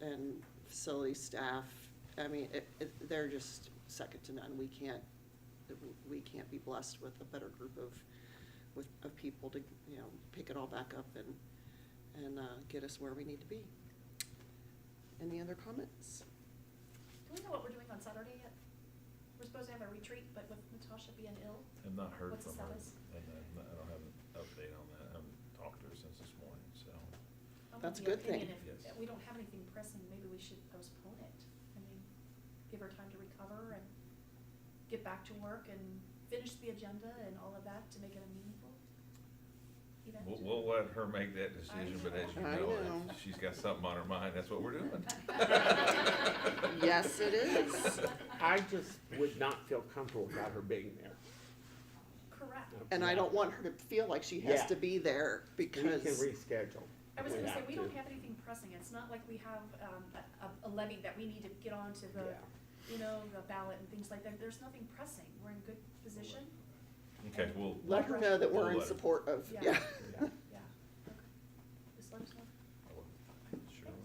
and facility staff, I mean, it, it, they're just second to none. We can't, we can't be blessed with a better group of, with, of people to, you know, pick it all back up and, and, uh, get us where we need to be. Any other comments? Do we know what we're doing on Saturday yet? We're supposed to have a retreat, but with Natasha being ill, I've not heard What's the from her, status? and I'm not- I don't have an update on that, I haven't talked to her since this morning, so. I'm of That's a the good thing. opinion if- Yes. If we don't have anything pressing, maybe we should postpone it. I mean, give her time to recover and get back to work and finish the agenda and all of that to make it a meaningful event. We'll, we'll let her make that decision, but as you I know, know. if she's got something on her mind, that's what we're doing. Yes, it is. I just would not feel comfortable without her being there. Correct. And I don't want her to feel like she has Yeah. to be there We can because, reschedule. I was if we gonna say, have we to. don't have anything pressing. It's not like we have, um, a, a levy that we need to get onto the, Yeah. you know, the ballot and things like that. There's nothing pressing. We're in good position. Okay, well, let her know that we're We'll in let her- support of, Yeah. yeah. Yeah. Yeah. Okay. Just let us know.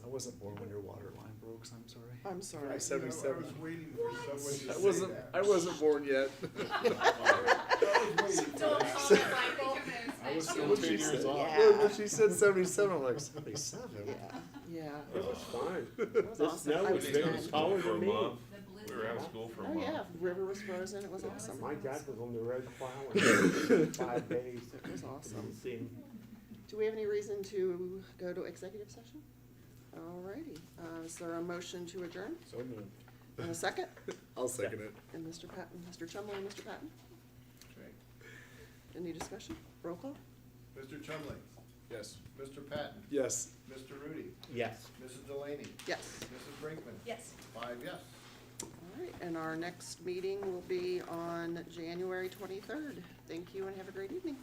I wasn't born when your water line broke, so I'm sorry. I'm sorry. Right, so- 77. I was waiting for someone I to say wasn't, that. I wasn't born yet. I was waiting for Don't that. call it Michael. I was Yeah. seventeen years old. Yeah. When she said seventy-seven, I'm like, Yeah, seventy-seven? yeah. It was fun. The awesome. snow I was was big down and taller for a than me. month. The We were blizzard. out of school for a uh, Oh, month. yeah, river was frozen, it was awesome. My dad was on the road plowing for five days. It was awesome. Didn't see him. Do we have any reason to go to executive session? Alrighty, uh, is there a motion to adjourn? So moved. And a second? I'll second it. And Mr. Patton, Mr. Chumley and Mr. Patton? Any discussion? Roll call? Mr. Chumley, Yes. Mr. Patton, Yes. Mr. Rudy, Yes. Mrs. Delaney, Yes. Mrs. Brinkman. Yes. Five yes. Alright, and our next meeting will be on January twenty-third. Thank you and have a great evening.